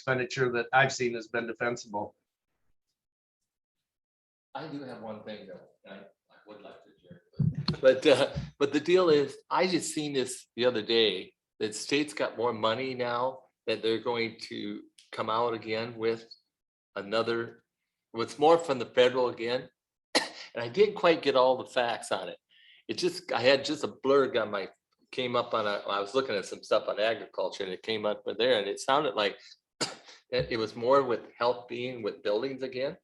expenditure that I've seen has been defensible. I do have one thing though, and I, I would like to share. But, uh, but the deal is, I just seen this the other day, that states got more money now that they're going to come out again with another, what's more from the federal again. And I didn't quite get all the facts on it. It just, I had just a blurb on my, came up on a, I was looking at some stuff on agriculture and it came up with there and it sounded like that it was more with health being with buildings again.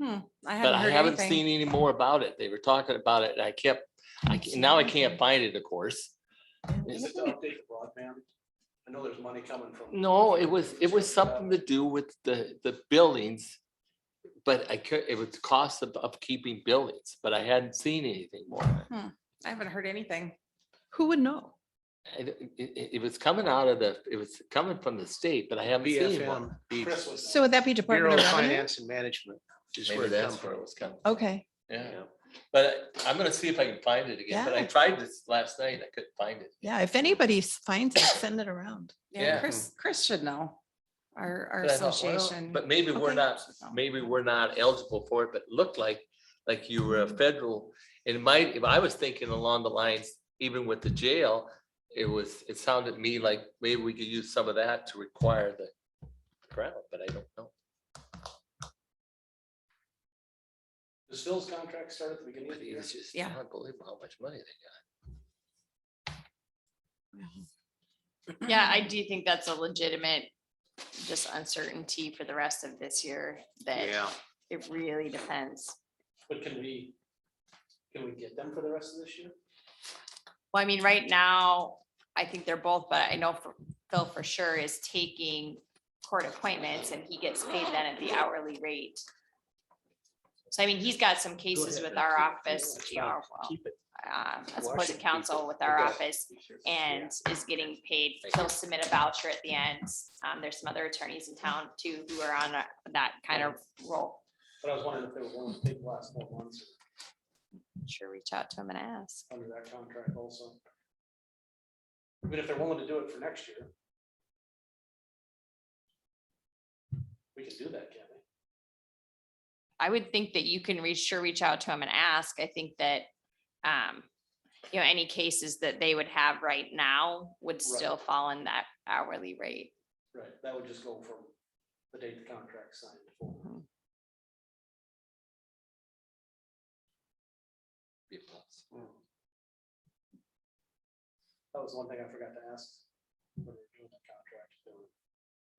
I But haven't I heard haven't anything. seen any more about it. They were talking about it and I kept, I, ca- now I can't find it, of course. Is it to update the broadband? I know there's money coming from. No, it was, it was something to do with the, the buildings. But I could, it was cost of upkeeping buildings, but I hadn't seen anything more. I haven't heard anything. Who would know? It, it- it- it was coming out of the, it was coming from the state, but I haven't seen one. BFM, Chris would know. So would that be Bureau Department of of Revenue? Finance and Management. is where Maybe it come that's from. where it was coming. from. Okay, Yeah, but I'm gonna see if I can find it again, but I Yeah. tried this last night. I couldn't find it. yeah, if anybody s- finds it, send it around. Yeah, Yeah. Chris, Chris should know. Our, our But I thought, well, association. But maybe we're Okay. not, maybe we're not eligible for it, but it looked like, like you were a federal. And it might, if I was thinking along the lines, even with the jail, it was, it sounded to me like maybe we could use some of that to require the crowd, but I don't know. Does Phil's contract start at the beginning of But the it year? was just Yeah. unbelievable how much money they Yeah, I do think that's a legitimate, just uncertainty for the rest of this year, that it really depends. But can we, can we get them for the rest of this year? Well, I mean, right now, I think they're both, but I know for- Phil for sure is taking court appointments and he gets paid then at the hourly rate. So I mean, he's got some cases ahead, with our keep- office, keep it. you know, well, Keep it. uh, as opposed to Washington, counsel with our Okay. office. and is getting paid. Thank They'll submit a voucher at the end. Um, there's some other attorneys in town too who are on a- that kind of role. But I was wondering if there was one big last four months Sure, reach out to them and ask. under that contract also. But if they're willing to do it for next year. We can do that, can't we? I would think that you can reach, sure, reach out to them and ask. I think that, um, you know, any cases that they would have right now would still fall in that hourly rate. Right, that would just go from the date the contract signed. forward. got. That was one thing I forgot to ask. when we were doing the contract, so it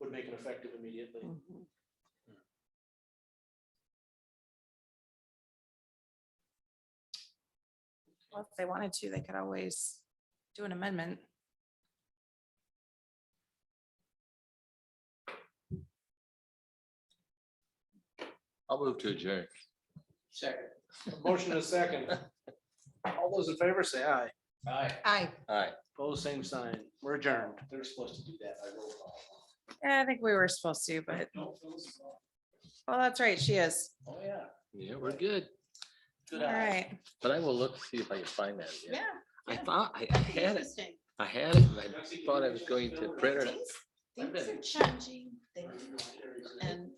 Would make it effective immediately. Well, If they wanted to, they could always do an amendment. I'll move to adjourn. Second. Motion is second. All those in favor say aye. Aye. Aye. All right. Pose same sign. We're adjourned. They're supposed to do that. I will. Yeah, I think we were supposed to, but, No, Phil's- oh, that's right, she is. Oh, yeah. Yeah, we're good. Good All eye. right. But I will look, see if I can find that. again. I yeah. thought, I I had it. I had it. and I thought I was going to print it. Things are changing, things- and